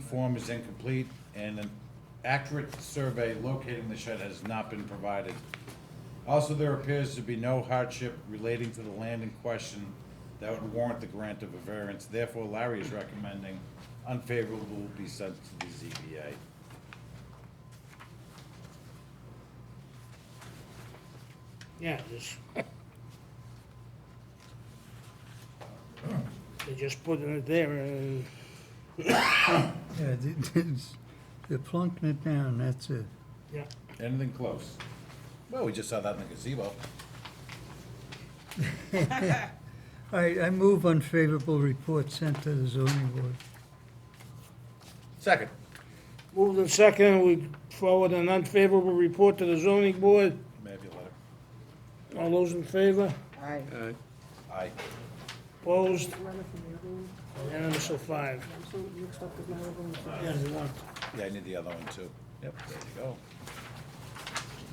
Form is incomplete and an accurate survey locating the shed has not been provided. Also, there appears to be no hardship relating to the land in question that would warrant the grant of a variance. Therefore, Larry is recommending unfavorable be sent to the ZBA. Yeah, just. They're just putting it there and, Yeah, it- it's, they're plunking it down, that's it. yeah, Anything close? Well, we just saw that in the gazebo. All right, I move unfavorable report sent to the zoning board. Second. moved in second, we forward an unfavorable report to the zoning board. Maybe letter. All those in favor? Aye. Aye. Opposed? Letter from the other one, Unanimous of five. I'm so mixed up with my other one. Yeah, you want, Yeah, I need the other one too. Yep, there you go.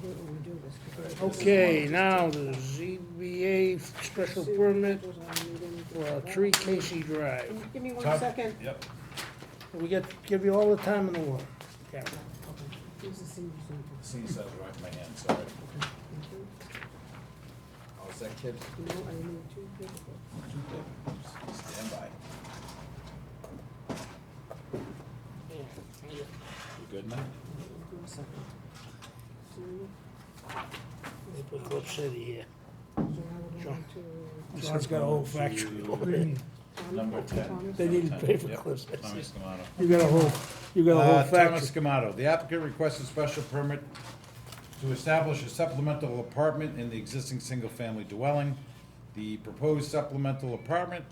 Do it when we do this, 'cause there's- okay, now the ZBA special permit There's our meeting. for Tree Casey Drive. Give me one Top- second. Yep. We get, give you all the time in the world. Yeah. Here's the senior center. See, so I wiped my hand, sorry. Thank you. Oh, is that kid? No, I need two people. Stand by. You good now? Give me a second. Sue, They put Brook City here. Joe, I would Sure. like to- John's got a whole factory over there. Tom- Number ten. Thomas? They need to pay for Yep, clips. Thomas Scamato. You got a whole, you got a whole Uh, Thomas factory. Scamato, the applicant requests a special permit to establish a supplemental apartment in the existing single-family dwelling. The proposed supplemental apartment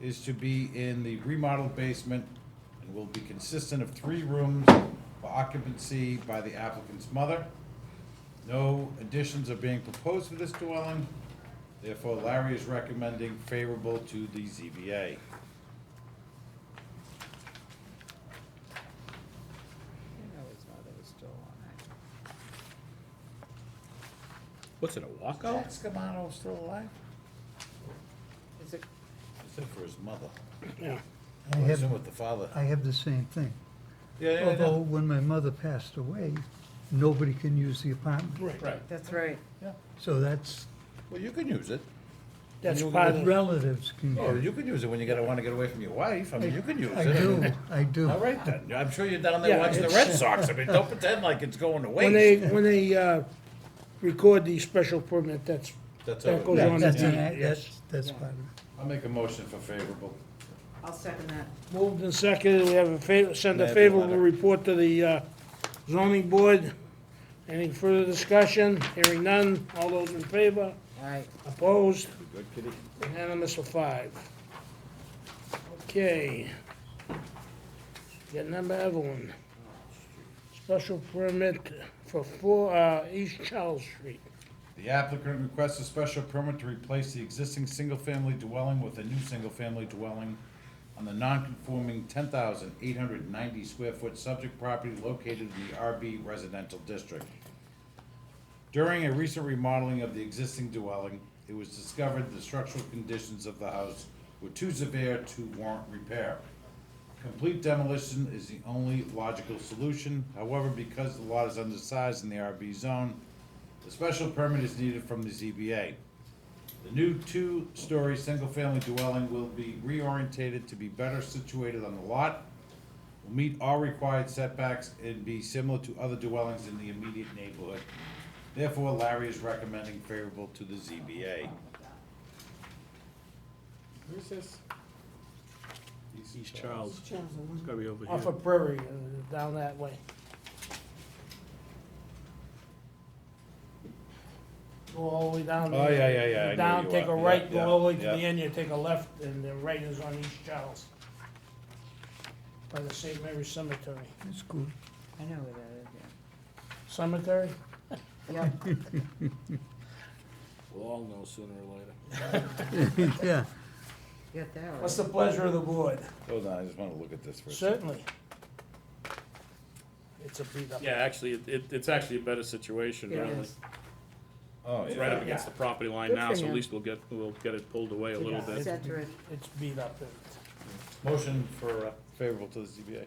is to be in the remodeled basement and will be consistent of three rooms for occupancy by the applicant's mother. No additions are being proposed for this dwelling, therefore Larry is recommending favorable to the ZBA. What's it, a walkout? Jack Scamano still alive? Is it- Except for his mother. Yeah. I I assume have, with the father. I have the same thing. Yeah, yeah, Although, yeah. when my mother passed away, nobody can use the apartment. Right, That's right. yeah. So that's, Well, you can use it. That's You- part of, relatives can Oh, use you can use it when you gotta, wanna get away from your wife. I mean, you can use it. it. I do, I do. All right then. I'm sure you're down there Yeah, watching the it's- Red Sox. I mean, don't pretend like it's going to when they, waste. when they, uh, record the special permit, that's, That's that all. goes That- on. That's, the- an Yeah. act- that's, that's part of it. I'll make a motion for favorable. I'll second that. Moved and seconded, we have a favor, send May I a have the favorable letter? report to the, uh, zoning board. Any further discussion? Hearing none, all those in favor? Aye. Opposed? You good, kitty? Unanimous of five. Okay. Get number Evelyn. Special permit for four, uh, East Charles Street. The applicant requests a special permit to replace the existing single-family dwelling with a new single-family dwelling on the non-conforming ten thousand eight hundred ninety square foot subject property located in the RB residential district. During a recent remodeling of the existing dwelling, it was discovered the structural conditions of the house were too severe to warrant repair. Complete demolition is the only logical solution, however, because the lot is undersized in the RB zone, the special permit is needed from the ZBA. The new two-story, single-family dwelling will be reorientated to be better situated on the lot, will meet all required setbacks and be similar to other dwellings in the immediate neighborhood. Therefore, Larry is recommending favorable to the ZBA. Where's this? East Charles, Charles, I it's wonder- gotta be over Off here. of Prairie, uh, down that way. Go all the way down. Oh, yeah, yeah, yeah, I know you Down, take a are. right, Yeah, go all the way to yeah, the yeah. end, you take a left, and the right is on East Charles. By the St. Mary's Cemetery. It's cool. I know where that is, yeah. Cemetery? Yeah. We'll all know sooner or later. Yeah, Get that right. What's the pleasure of the board? Hold on, I just wanna look at this for a second. Certainly. It's a beat up. Yeah, actually, it- it, it's actually a better situation, It really. is. Oh, It's right yeah, up against the property line Good now, for so him. at least we'll get, we'll get it pulled away a little Yeah. bit. Set to it. It's beat up. motion for uh, favorable to the ZBA.